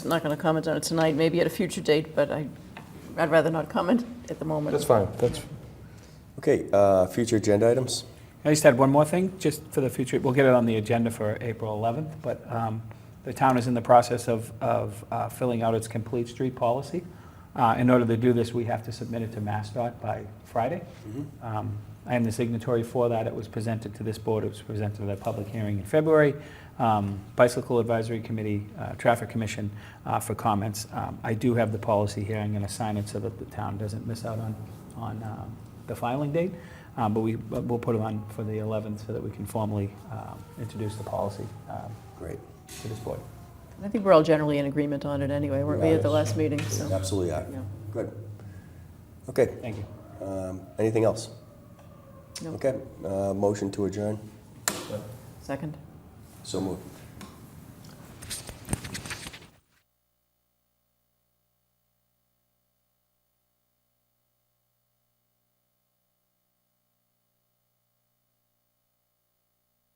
I'm not going to comment on it tonight, maybe at a future date, but I, I'd rather not comment at the moment. That's fine, that's, Okay, uh, future agenda items? I just had one more thing, just for the future, we'll get it on the agenda for April 11th, but um, the town is in the process of, of uh, filling out its complete street policy. Uh, In order to do this, we have to submit it to MassDOT by Friday. Um, I am the signatory for that, it was presented to this board, it was presented at a public hearing in February, um, Bicycle Advisory Committee, uh, Traffic Commission uh, for comments. Um, I do have the policy here, I'm going to sign it so that the town doesn't miss out on, on um, the filing date. Um, But we, but we'll put it on for the 11th so that we can formally um, introduce the policy um, Great. to this board. I think we're all generally in agreement on it anyway, weren't we at the Yes. last meeting, so. Absolutely are. yeah. Good. Okay, Thank you. um, anything else? No. Okay, uh, motion to adjourn? Second? So moved.